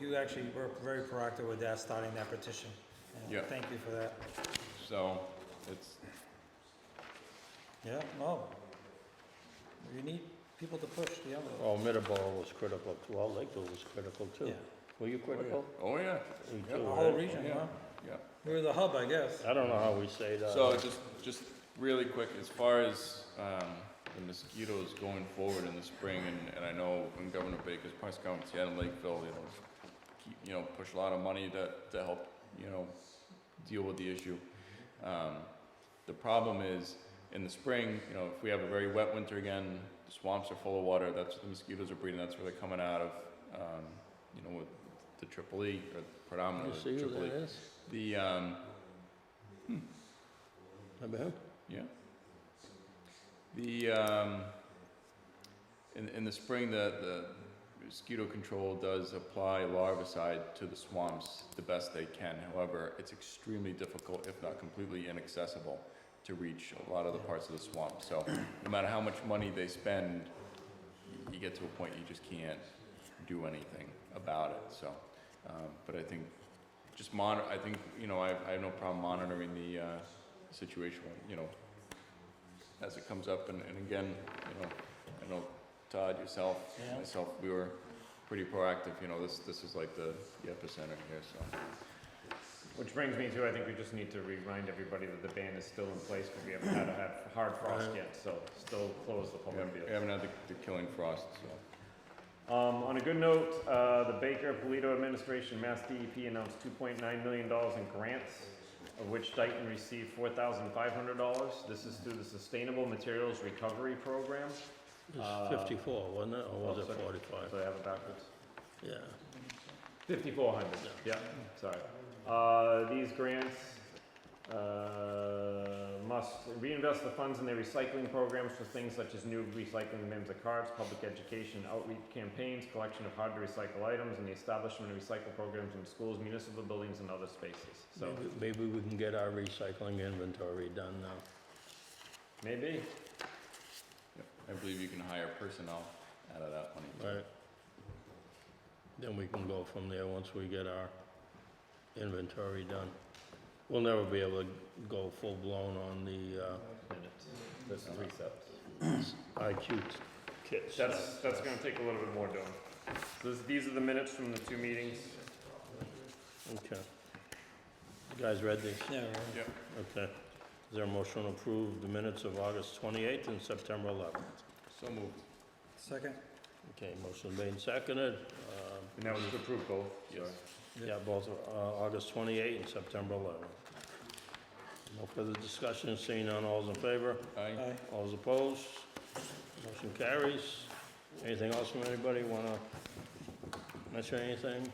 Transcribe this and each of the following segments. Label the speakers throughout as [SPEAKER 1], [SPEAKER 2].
[SPEAKER 1] you actually were very proactive with that, starting that petition. And
[SPEAKER 2] Yeah.
[SPEAKER 1] Thank you for that.
[SPEAKER 2] So it's, oh,
[SPEAKER 1] Yeah, no. You need people to push the envelope.
[SPEAKER 3] Well, Oh, Middleborough was critical, too. well, Lakeville was critical too.
[SPEAKER 1] Yeah.
[SPEAKER 3] Were you
[SPEAKER 2] oh yeah,
[SPEAKER 3] critical?
[SPEAKER 2] oh yeah,
[SPEAKER 3] You
[SPEAKER 2] Yeah.
[SPEAKER 3] too,
[SPEAKER 1] The whole
[SPEAKER 3] right?
[SPEAKER 1] region,
[SPEAKER 2] yeah,
[SPEAKER 1] huh?
[SPEAKER 2] yeah.
[SPEAKER 1] We're the hub, I guess.
[SPEAKER 3] I don't know how we say that.
[SPEAKER 2] So just, just really quick, as far as, um, the mosquitoes going forward in the spring, and, and I know in Governor Baker's press conference, he had in Lakeville, you know, keep, you know, push a lot of money to, to help, you know, deal with the issue. Um, the problem is, in the spring, you know, if we have a very wet winter again, the swamps are full of water, that's where the mosquitoes are breeding, that's where they're coming out of, um, you know, with the triple E, or
[SPEAKER 3] You
[SPEAKER 2] predominantly
[SPEAKER 3] see who
[SPEAKER 2] triple E.
[SPEAKER 3] that is?
[SPEAKER 2] The, um,
[SPEAKER 3] Remember him?
[SPEAKER 2] Yeah. The, um, in, in the spring, the, the mosquito control does apply larvicide to the swamps the best they can. However, it's extremely difficult, if not completely inaccessible, to reach a lot of the parts of the swamp. So no matter how much money they spend, y- you get to a point you just can't do anything about it, so. Um, but I think just monitor, I think, you know, I, I have no problem monitoring the, uh, situation, you know, as it comes up, and, and again, you know, I know Todd, yourself,
[SPEAKER 1] Yeah.
[SPEAKER 2] myself, we were pretty proactive, you know, this, this is like the the epicenter here, so.
[SPEAKER 4] Which brings me to, I think we just need to remind everybody that the ban is still in place because we haven't had a ha- hard frost
[SPEAKER 1] Right.
[SPEAKER 4] yet, so still close the
[SPEAKER 2] We
[SPEAKER 4] public
[SPEAKER 2] haven't- we
[SPEAKER 4] field.
[SPEAKER 2] haven't had the, the killing frost, so.
[SPEAKER 4] Um, on a good note, uh, the Baker Polito administration, Mass DEP announced two point nine million dollars in grants, of which Dayton received four thousand five hundred dollars. This is through the Sustainable Materials Recovery Program,
[SPEAKER 3] It
[SPEAKER 4] Uh,
[SPEAKER 3] was fifty-four, wasn't it, or
[SPEAKER 4] oh,
[SPEAKER 3] was it
[SPEAKER 4] sorry. so
[SPEAKER 3] forty-five?
[SPEAKER 4] I have it backwards.
[SPEAKER 3] Yeah.
[SPEAKER 4] Fifty-four hundred, yeah, sorry. Uh, these grants, uh, must reinvest the funds in their recycling programs for things such as new recycling bins of cards, public education, outreach campaigns, collection of hard-to-recycle items, and the establishment of recycle programs in schools, municipal buildings, and other spaces, so,
[SPEAKER 3] Maybe, maybe we can get our recycling inventory done now.
[SPEAKER 4] maybe.
[SPEAKER 2] I believe you can hire personnel out of that money. too.
[SPEAKER 3] Right. Then we can go from there once we get our inventory done. We'll never be able to go full-blown on the, uh,
[SPEAKER 4] Minutes, there's three steps.
[SPEAKER 3] IQ kits.
[SPEAKER 4] That's, that's gonna take a little bit more doing. So this, these are the minutes from the two meetings.
[SPEAKER 3] Okay. You guys read these?
[SPEAKER 1] Yeah, right.
[SPEAKER 3] Okay. Is there a motion to approve the minutes of August twenty-eighth and September eleventh?
[SPEAKER 2] So moved.
[SPEAKER 1] Second?
[SPEAKER 3] Okay, motion made and seconded. Uh,
[SPEAKER 4] And that was to approve both,
[SPEAKER 2] Yes.
[SPEAKER 3] Yeah, both, uh, August 28 and September 11. No further discussion, seeing none, all's in favor,
[SPEAKER 2] Aye.
[SPEAKER 1] Aye.
[SPEAKER 3] all's opposed, motion carries. Anything else from anybody, wanna mention anything?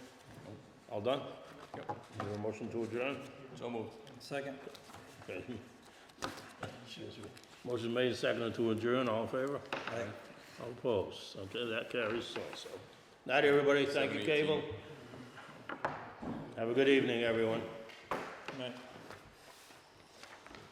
[SPEAKER 3] All done?
[SPEAKER 2] Yep.
[SPEAKER 3] Is there a motion to adjourn?
[SPEAKER 2] So moved.
[SPEAKER 1] Second?
[SPEAKER 3] Okay. Excuse me. Motion made, seconded to adjourn, all in favor?
[SPEAKER 1] Aye.
[SPEAKER 3] All opposed, okay, that carries so, so. Night, everybody, thank you, Cable. Have a good evening, everyone.
[SPEAKER 1] Right.